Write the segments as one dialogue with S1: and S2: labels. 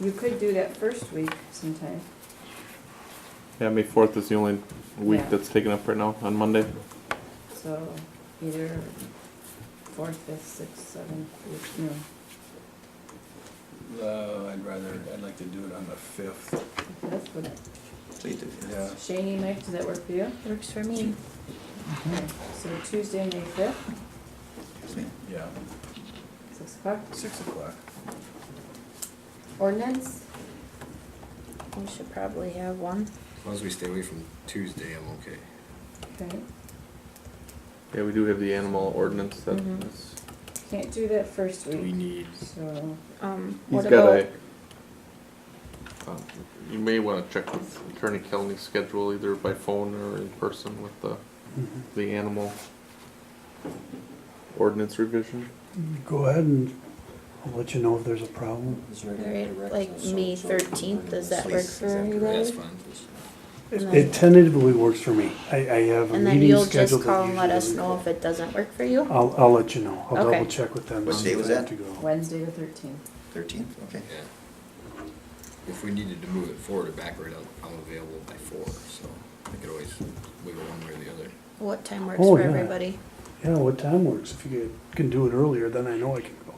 S1: You could do that first week sometime.
S2: Yeah, May fourth is the only week
S1: Yeah.
S2: that's taken up right now, on Monday.
S1: So either fourth, fifth, sixth, seventh, eighth, no,
S3: Uh, I'd rather, I'd like to do it on the fifth,
S1: that's what,
S3: yeah.
S1: Shane, Mike, does that work for you?
S4: Works for me.
S1: Okay, So Tuesday, May fifth,
S3: Yeah,
S1: six o'clock.
S3: six o'clock.
S1: Ordinance,
S4: We should probably have one.
S5: As long as we stay away from Tuesday, I'm okay.
S1: okay,
S2: Yeah, we do have the animal ordinance that
S4: Mhm.
S2: is,
S1: can't do that first
S5: Do we
S1: week,
S5: need,
S1: so,
S4: Um,
S2: he's
S4: what
S2: got
S4: about,
S2: a. uh, You may wanna check with Attorney Kelly's schedule either by phone or in person with the,
S5: Mm-hmm.
S2: the animal ordinance revision.
S6: Go ahead and I'll let you know if there's a problem.
S4: Alright, like May thirteenth, does that work
S5: Please,
S4: for
S5: exactly. that's
S4: everybody?
S5: fine.
S4: And
S6: It
S4: then-
S6: tentatively works for me. I, I have a
S4: And then
S6: meeting
S4: you'll just
S6: scheduled.
S4: call
S6: that
S4: and let us
S6: usually-
S4: know if it doesn't work for you?
S6: I'll, I'll let you know. I'll
S4: Okay.
S6: double check with them.
S7: What
S6: on
S7: day
S6: if
S7: was
S6: I have
S7: that?
S6: to go.
S1: Wednesday the thirteenth.
S7: Thirteenth, okay.
S5: Yeah. If we needed to move it forward or backward, I'm, I'm available by four, so I could always wiggle one way or the other.
S4: What time works
S6: Oh,
S4: for
S6: yeah.
S4: everybody?
S6: Yeah, what time works? If you get- can do it earlier, then I know I can go.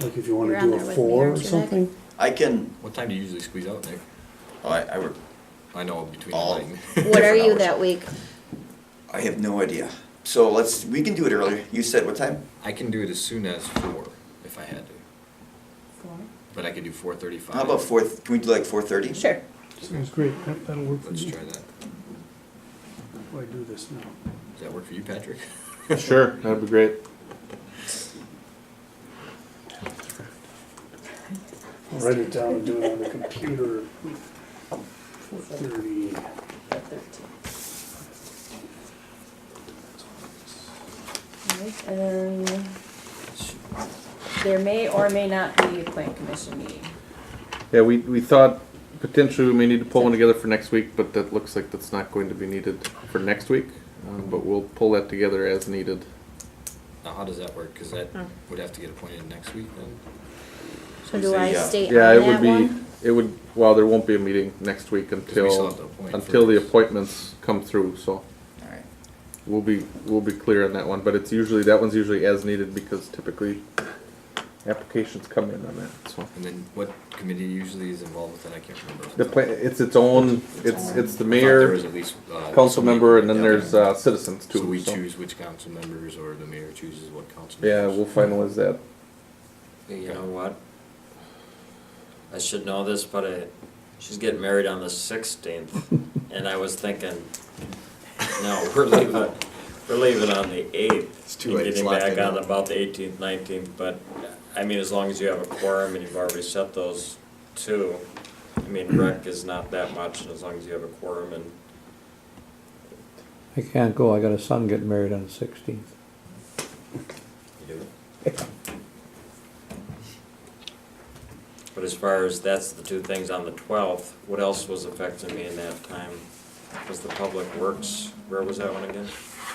S6: Like if you wanna
S4: Mm-hmm. You're
S6: do
S4: on there
S6: a
S4: with
S6: four or
S4: me, aren't you, Nick?
S6: something.
S7: I can,
S5: What time do you usually squeeze out, Nick?
S7: oh, I, I work,
S5: I know between
S7: All-
S5: mine.
S4: What are you
S7: Different
S4: that week?
S7: I have no idea. So let's, we can do it earlier. You said what time?
S5: I can do it as soon as four, if I had to,
S1: Four.
S5: but I could do four thirty-five.
S7: How about four, can we do like four thirty?
S4: Sure.
S6: Sounds great. Yep, That'll work for
S5: Let's
S6: me.
S5: try that.
S6: Why do this now?
S5: Does that work for you, Patrick?
S2: Sure, that'd be great.
S6: I'll write it down and do it on the computer. Four thirty.
S1: the thirteenth. Alright, and then there may or may not be a plan commission meeting.
S2: Yeah, we, we thought potentially we may need to pull one together for next week, but that looks like that's not going to be needed for next week. Um, but we'll pull that together as needed.
S5: Now, how does that work? Cause that
S4: Hmm.
S5: would have to get appointed next week then?
S4: So
S7: You
S4: do
S7: say,
S4: I
S7: yeah.
S4: stay on
S2: Yeah, it
S4: that
S2: would be,
S4: one?
S2: it would, well, there won't be a meeting next week
S5: we still have to
S2: until,
S5: appoint
S2: until the
S5: first.
S2: appointments come through, so
S7: All right.
S2: we'll be, we'll be clear on that one, but it's usually, that one's usually as needed because typically applications come in on that, so.
S5: And then what committee usually is involved with that? I can't remember.
S2: The pla- it's its own, it's, it's the
S5: There
S2: mayor,
S5: was at least, uh,
S2: council member, and then
S5: yeah.
S2: there's, uh, citizens too.
S5: So we choose which council members or the mayor chooses what council
S2: Yeah,
S5: members?
S2: we'll finalize that.
S8: You know what? I should know this, but I, she's getting married on the sixteenth, and I was thinking, no, we're leaving, we're leaving on the eighth.
S5: It's too late, it's locked
S8: Getting
S5: in
S8: back on
S5: now.
S8: about the eighteenth, nineteenth, but, I mean, as long as you have a quorum and you've already set those two, I mean, rec is not that much, and as long as you have a quorum and
S9: I can't go, I got a son getting married on the sixteenth.
S8: you do. But as far as, that's the two things on the twelfth, what else was affecting me in that time? Was the public works, where was that one again?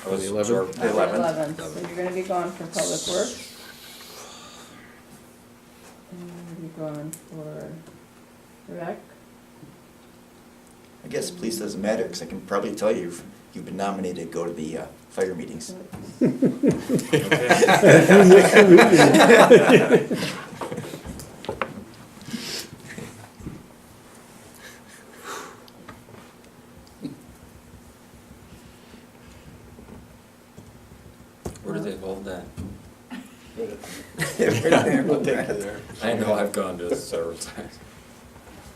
S8: I was
S2: The 11th?
S8: absorbed.
S7: The 11th.
S1: Eleven, so you're gonna be gone for public works. And you're gonna be gone for rec.
S7: I guess police doesn't matter, because I can probably tell you, if you've been nominated, to go to the uh, fire meetings.
S8: Okay. Where do they hold that?
S3: We'll take you there.
S8: I know I've gone to it several times.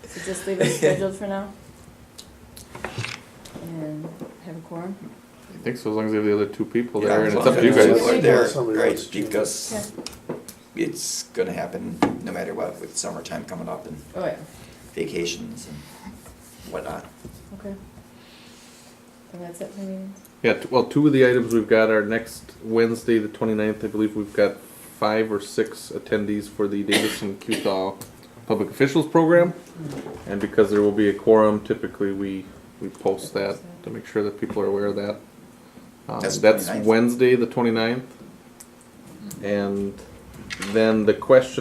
S1: So just leave it scheduled for now. And have a quorum.
S2: I think so, as long as they have the other two people
S7: Yeah,
S2: there,
S7: as
S2: and it's
S7: long
S2: up to you
S7: as there's
S2: guys.
S7: people there,
S6: Somebody
S7: Right,
S6: else should.
S7: because it's gonna happen no matter what, with summertime coming up and
S1: Oh, yeah,
S7: vacations and whatnot.
S1: okay. And that's it for me.
S2: Yeah, t- well, two of the items we've got are next Wednesday, the 29th, I believe we've got five or six attendees for the Davidson Cuthall Public Officials Program. And because there will be a quorum, typically we, we post that to make sure that people are aware of that. Um,
S7: That's
S2: That's
S7: 29th.
S2: Wednesday, the 29th. And then the question